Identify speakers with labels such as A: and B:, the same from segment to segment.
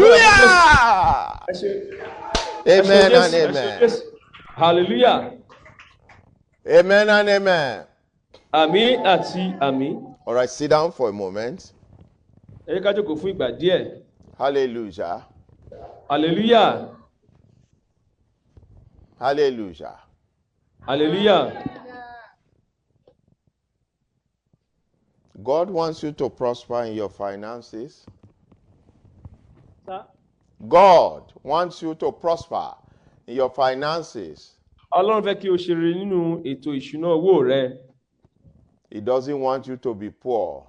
A: Hallelujah.
B: Ẹ ṣé. Ẹ ṣé
A: Amen and
B: Jésù, ẹ ṣé
A: amen.
B: Jésù. hallelujah
A: Amen and amen.
B: àmín àti àmín
A: All right, sit down for a moment.
B: ẹ jẹ́ ká jókòó fún ìgbà díẹ̀
A: Hallelujah.
B: hallelujah
A: Hallelujah.
B: hallelujah
A: God wants you to prosper in your finances. God wants you to prosper in your finances.
B: ọlọ́run fẹ́ kí o ṣe rere nínú ètò ìṣúná owó rẹ
A: He doesn't want you to be poor.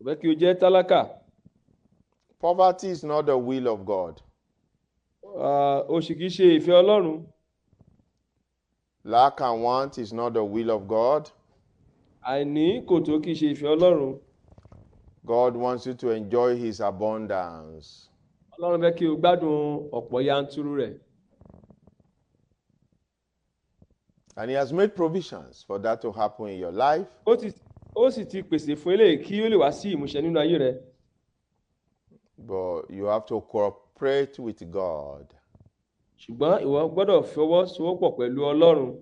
B: kò fẹ́ kí o jẹ́ tálákà
A: Poverty is not the will of God.
B: Ah, o sì kì í ṣe ìfẹ́ ọlọ́run
A: Lack and want is not the will of God.
B: àìní kò tó kì í ṣe ìfẹ́ ọlọ́run
A: God wants you to enjoy His abundance.
B: ọlọ́run fẹ́ kí o gbádùn ọ̀pọ̀ yanturu rẹ̀
A: And He has made provisions for that to happen in your life.
B: ó ti ó sì ti pèsè fún eléyìí kí ó lè wá sí ìmúṣẹ nínú ayé rẹ
A: But you have to cooperate with God.
B: ṣùgbọ́n ìwọ gbọ́dọ̀ fọwọ́sowọ́pọ̀ pẹ̀lú ọlọ́run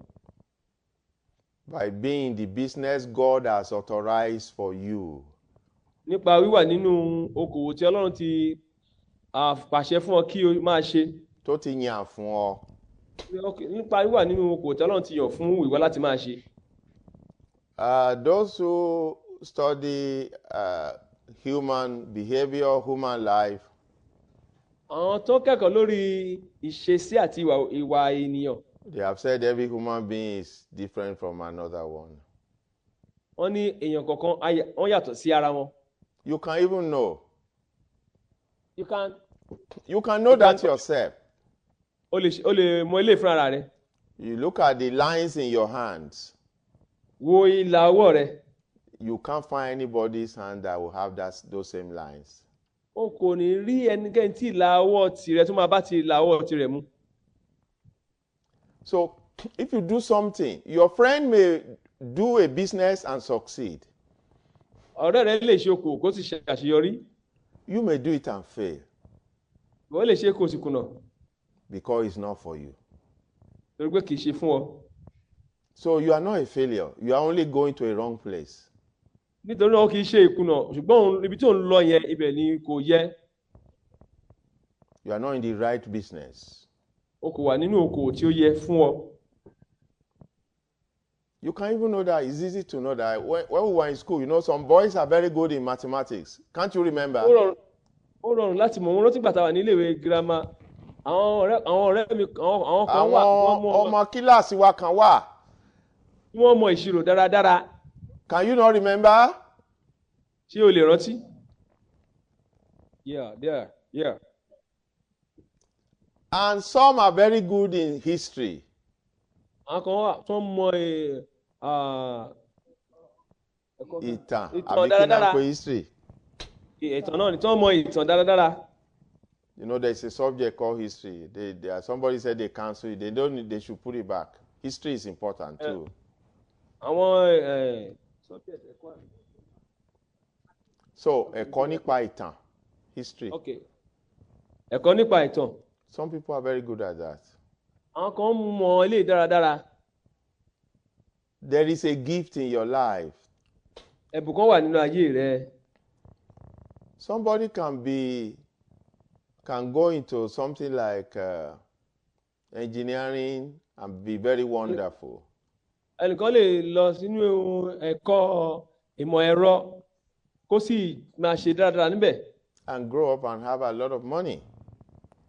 A: By being in the business God has authorized for you,
B: nípa wíwà nínú okòwò tí ọlọ́run ti ah, pàṣẹ fún ọ kí o máa ṣe
A: tó ti yàn fún ọ.
B: nípa wíwà nínú okòwò tí ọlọ́run ti yàn fún ìwọ láti máa ṣe
A: Uh, those who study uh, human behavior, human life,
B: àwọn tó kẹ́kọ̀ọ́ lórí ìṣesí àti ìwà ìwà ènìyàn
A: they have said every human being is different from another one.
B: wọ́n ní èèyàn kọ̀ọ̀kan ayà- wọ́n yàtọ̀ sí ara wọn
A: You can even know.
B: you can
A: You can know
B: You can
A: that
B: know.
A: yourself.
B: o lè ṣe- o lè mọ ilé fún ara rẹ
A: You look at the lines in your hands.
B: wo ìlà ọwọ́ rẹ
A: You can't find anybody's hand that will have that, those same lines.
B: o kò ní rí ẹnikẹ́ni tí ìlà ọwọ́ tirẹ̀ tó máa bá ti ìlà ọwọ́ tirẹ̀ mu
A: So if you do something, your friend may do a business and succeed.
B: ọ̀rẹ́ rẹ lè ṣe okòwò kó sì ṣe àṣeyọrí
A: You may do it and fail
B: ìwọ lè ṣe kó o sì kùnà
A: because it's not for you.
B: torí pé kì í ṣe fún ọ
A: So you are not a failure. You are only going to a wrong place.
B: nítorí náà kì í ṣe ìkùnà ṣùgbọ́n òun- ibi tí òun lọ yẹn ibẹ̀ ni kò yẹ
A: You are not in the right business.
B: o kò wà nínú okòwò tí ó yẹ fún ọ
A: You can even know that. It's easy to know that. When, when we were in school, you know, some boys are very good in mathematics. Can't you remember?
B: ó rọrùn ó rọrùn láti mọ̀ wọ́n rántí gbàtà wà níléèwé girama àwọn ọ̀rẹ́ àwọn ọ̀rẹ́ mi àwọn àwọn kan wà tí
A: Àwọn
B: wọ́n mọ̀
A: ọmọ kíláàsì wa kan wà.
B: tí wọ́n mọ̀ ìṣirò dáradára
A: Can you not remember?
B: ṣé o lè rántí. Yeah, yeah, yeah.
A: And some are very good in history.
B: àwọn kan wà tí wọ́n mọ̀ ẹ̀, ah, ẹ̀kọ́-
A: Ìtàn
B: Ìtàn
A: àbí kí náà
B: dáradára.
A: pé history.
B: ìtàn náà ni tí wọ́n mọ̀ ìtàn dáradára.
A: You know, there's a subject called history. They, they are, somebody said they cancel it. They don't. need- They should put it back. History is important
B: Yeah.
A: too.
B: àwọn eh, ẹ̀, subject ẹ̀kọ́ àná.
A: So ẹ̀kọ́ nípa ìtàn, history.
B: ok ẹ̀kọ́ nípa ìtàn
A: Some people are very good at that.
B: àwọn kan mọ̀ ilé dáradára
A: There is a gift in your life.
B: ẹ̀bùn kan wà nínú ayé rẹ
A: Somebody can be can go into something like uh, engineering and be very wonderful.
B: ẹnìkan lè lọ sínú ẹ̀kọ́ ìmọ̀ ẹ̀rọ kó sì máa ṣe dáradára níbẹ̀
A: and grow up and have a lot of money.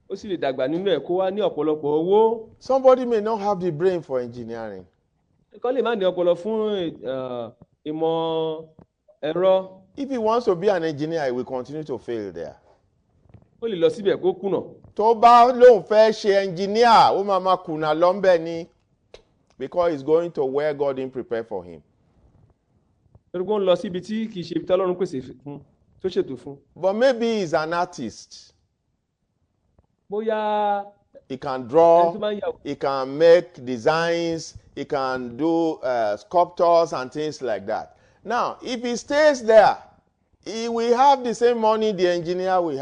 B: ó sì lè dàgbà nínú ẹ̀ kó wá ní ọ̀pọ̀lọpọ̀ owó
A: Somebody may not have the brain for engineering,
B: ẹnìkan lè má ní ọpọlọ fún eh, ìmọ̀ ẹ̀rọ
A: if he wants to be an engineer he will continue to fail there.
B: ó lè lọ síbẹ̀ kó kùnà
A: tó bá lóun fẹ́ ṣe engineer ó máa ma kùnà lọ́nbẹ̀ ni because he is going to where God didn't prepare for him.
B: torí pé ó ń lọ síbi tí kì í ṣe ibi tí Ọlọ́run pèsè fún tó ṣètò fún
A: But maybe he is an artist.
B: bóyá
A: He can
B: ẹni tó
A: draw,
B: máa ń yà
A: he can make designs, he can do uh, sculptures and things like that. Now, if he stays there, he will have the same money the engineer will